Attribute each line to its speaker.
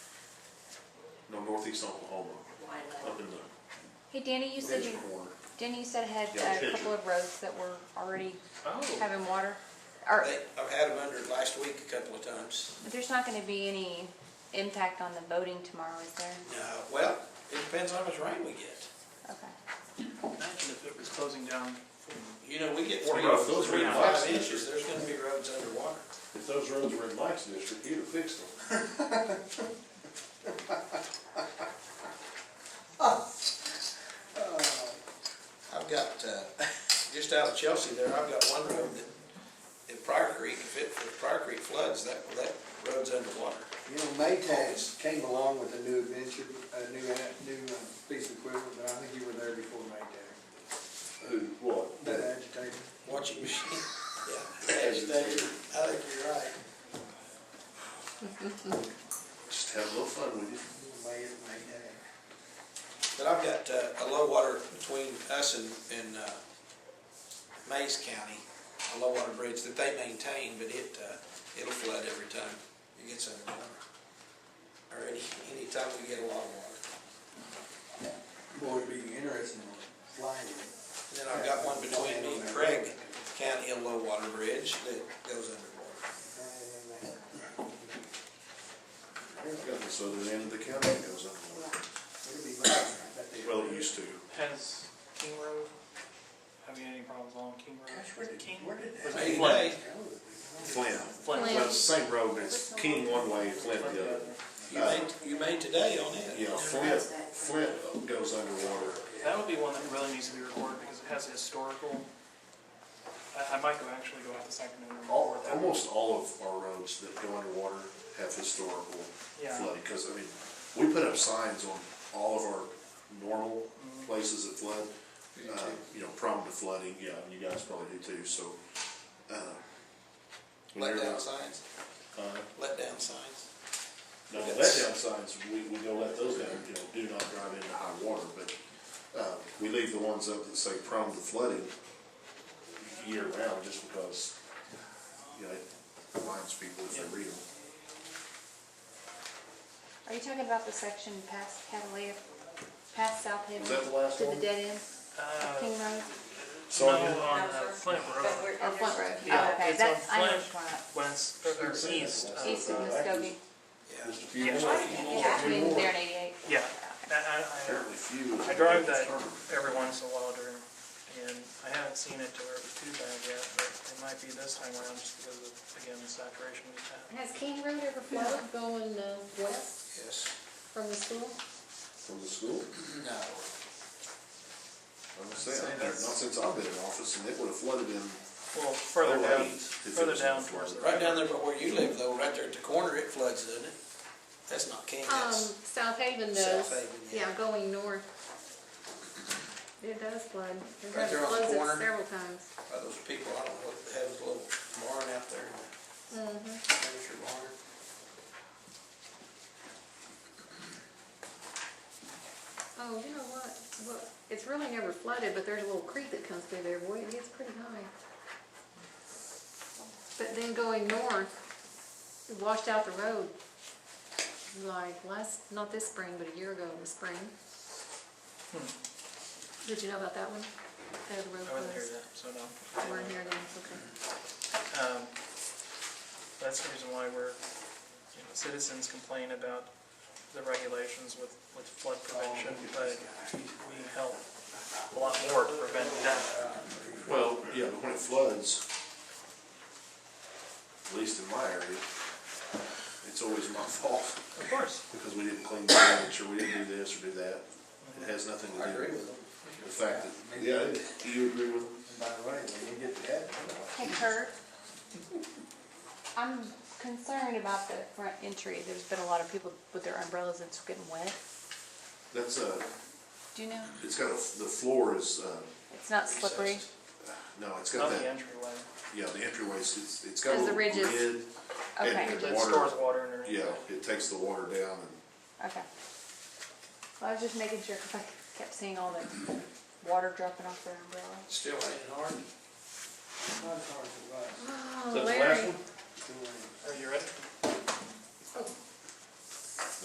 Speaker 1: northeast Oklahoma, up in the
Speaker 2: Hey, Danny, you said
Speaker 1: ridge
Speaker 2: you,
Speaker 1: corner.
Speaker 2: Danny, you said had
Speaker 1: Yeah,
Speaker 2: uh, a couple
Speaker 1: picture.
Speaker 2: of roads that were already
Speaker 1: Oh,
Speaker 2: having water. Are,
Speaker 3: They- I've had them under last week a couple of times.
Speaker 2: but there's not gonna be any impact on the voting tomorrow, is there?
Speaker 3: No, Uh, well, it depends how much rain we get.
Speaker 2: Okay.
Speaker 4: Imagine if it was closing down from
Speaker 3: You know, we get
Speaker 1: Or
Speaker 3: three,
Speaker 1: roads, those
Speaker 3: three to
Speaker 1: are
Speaker 3: five
Speaker 1: roads.
Speaker 3: inches, there's gonna be roads underwater.
Speaker 1: if those roads were in Mike's district, he'd have fixed them.
Speaker 3: I've got, uh, just out of Chelsea there, I've got one road that, at Prior Creek, if it, if Prior Creek floods, that, that road's underwater.
Speaker 5: You know, Maytag came along with a new adventure, a new, a new uh, piece of equipment, but I think you were there before Maytag.
Speaker 1: Who, what?
Speaker 5: That agitator.
Speaker 3: Watching machine, yeah, agitator, I think you're right.
Speaker 1: Just have a little fun with you.
Speaker 5: May, Maytag.
Speaker 3: But I've got uh, a low water between us and, and uh, Mays County, a low water bridge that they maintain, but it, uh, it'll flood every time it gets underwater. Or any, anytime we get a lot of water.
Speaker 5: Boy, it'd be interesting to fly it.
Speaker 3: And then I've got one between me and Craig County, a low water bridge that goes underwater.
Speaker 1: Got the southern end of the county that goes underwater.
Speaker 5: It'd be nice, I bet they-
Speaker 1: Well, it used to.
Speaker 4: Has King Road, have you had any problems along King Road?
Speaker 5: Gosh, where did,
Speaker 4: King
Speaker 5: where did
Speaker 4: Was
Speaker 5: that?
Speaker 4: it
Speaker 3: Maybe
Speaker 4: Flint?
Speaker 3: they-
Speaker 1: Flint.
Speaker 4: Flint.
Speaker 2: Flint.
Speaker 1: Well, it's the same road, but it's King one way and Flint the other. Uh,
Speaker 3: You made, you made today on it.
Speaker 1: Yeah, Flint, Flint goes underwater.
Speaker 4: That would be one that really needs to be recorded because it has historical, I, I might go actually go out this afternoon and
Speaker 1: All,
Speaker 5: Oh,
Speaker 4: record that.
Speaker 1: almost all of our roads that go underwater have historical
Speaker 4: Yeah.
Speaker 1: flooding, because, I mean, we put up signs on all of our normal places that flood. uh, You know, prone to flooding, yeah, and you guys probably do too, so, uh. when
Speaker 3: Let
Speaker 1: they're
Speaker 3: down
Speaker 1: not-
Speaker 3: signs,
Speaker 1: uh,
Speaker 3: let down signs.
Speaker 1: No, let down signs, we, we don't let those down, you know, do not drive into high water, but, uh, we leave the ones up that say prone to flooding year round, just because, you know, it reminds people if they read them.
Speaker 2: Are you talking about the section past Catalina, past South Haven?
Speaker 1: Was that the last
Speaker 2: To
Speaker 1: one?
Speaker 2: the dead end of
Speaker 4: Uh,
Speaker 2: King Road
Speaker 4: no,
Speaker 1: So,
Speaker 4: on uh, Flint Road.
Speaker 2: or Flint Road?
Speaker 4: Yeah,
Speaker 2: Oh, okay,
Speaker 4: it's
Speaker 2: that's,
Speaker 4: on
Speaker 2: I know
Speaker 4: Flint.
Speaker 2: which one.
Speaker 4: West, or east of.
Speaker 2: East of
Speaker 1: uh,
Speaker 2: Muskogee.
Speaker 3: Yeah.
Speaker 1: just a few
Speaker 4: Yeah.
Speaker 1: more,
Speaker 2: Yeah,
Speaker 1: a few
Speaker 2: between there
Speaker 1: more,
Speaker 2: and eighty-eight.
Speaker 4: Yeah, I, I, I-
Speaker 1: apparently few.
Speaker 4: I drive that every once in a while during, and I haven't seen it to where it was too bad yet, but it might be this time around just because of, again, the saturation we've had.
Speaker 6: Has King Road ever flowed going uh, west
Speaker 3: Yes.
Speaker 6: from the school?
Speaker 1: From the school,
Speaker 3: No.
Speaker 1: I'm gonna say, I've not since I've been in office, and it would have flooded in,
Speaker 4: Well, further
Speaker 1: Oh,
Speaker 4: down,
Speaker 1: right. If
Speaker 4: further
Speaker 1: it's
Speaker 4: down
Speaker 1: not
Speaker 4: towards the
Speaker 1: further.
Speaker 3: Right
Speaker 4: right.
Speaker 3: down there, but where you live though, right there at the corner, it floods, doesn't it? That's not King,
Speaker 6: Um,
Speaker 3: that's,
Speaker 6: South Haven does.
Speaker 3: South Haven, yeah.
Speaker 6: Yeah, going north. It does flood.
Speaker 3: Right
Speaker 6: It has
Speaker 3: there on the
Speaker 6: flooded
Speaker 3: corner.
Speaker 6: several times.
Speaker 2: Um,
Speaker 3: by those people, I don't know, what they have a little barn out there, amateur barn.
Speaker 6: Oh, you know what? Well, it's really never flooded, but there's a little creek that comes through there. Boy, it gets pretty high. But then going north, it washed out the road. Like last, not this spring, but a year ago in the spring. Did you know about that one? That road
Speaker 4: Hmm. I wasn't here
Speaker 6: was.
Speaker 4: yet, so no.
Speaker 6: We're in here then, okay.
Speaker 4: Um, That's the reason why we're, you know, citizens complain about the regulations with, with flood prevention, but we help a lot more to prevent that.
Speaker 1: well, yeah, but when it floods, at least in my area, it's always my fault.
Speaker 4: Of course.
Speaker 1: because we didn't clean the ditch, or we didn't do this, or do that. It has nothing to
Speaker 3: I
Speaker 1: do
Speaker 3: agree with
Speaker 1: with
Speaker 3: them.
Speaker 1: the fact that, yeah, do you agree with them?
Speaker 5: And By the way, when you get to that,
Speaker 2: Hey Kurt, I'm concerned about the front entry. There's been a lot of people with their umbrellas that's getting wet.
Speaker 1: That's a,
Speaker 2: Do you know?
Speaker 1: it's got a, the floor is, uh,
Speaker 2: It's not slippery.
Speaker 1: no, it's
Speaker 4: Not
Speaker 1: got
Speaker 4: the
Speaker 1: that,
Speaker 4: entryway.
Speaker 1: yeah, the entryways, it's, it's got a
Speaker 6: There's the
Speaker 1: little
Speaker 6: ridges.
Speaker 1: lid.
Speaker 2: Okay.
Speaker 1: And
Speaker 4: It
Speaker 1: the
Speaker 4: stores
Speaker 1: water,
Speaker 4: water underneath.
Speaker 1: yeah,
Speaker 4: it.
Speaker 1: it takes the water down and,
Speaker 2: Okay. Well, I was just making sure because I kept seeing all the water dropping off their umbrella.
Speaker 3: Still ain't hard.
Speaker 5: it's not as hard as it was.
Speaker 6: Oh,
Speaker 1: Is that the last
Speaker 6: Larry.
Speaker 1: one?
Speaker 5: It's still raining.
Speaker 4: Are you ready?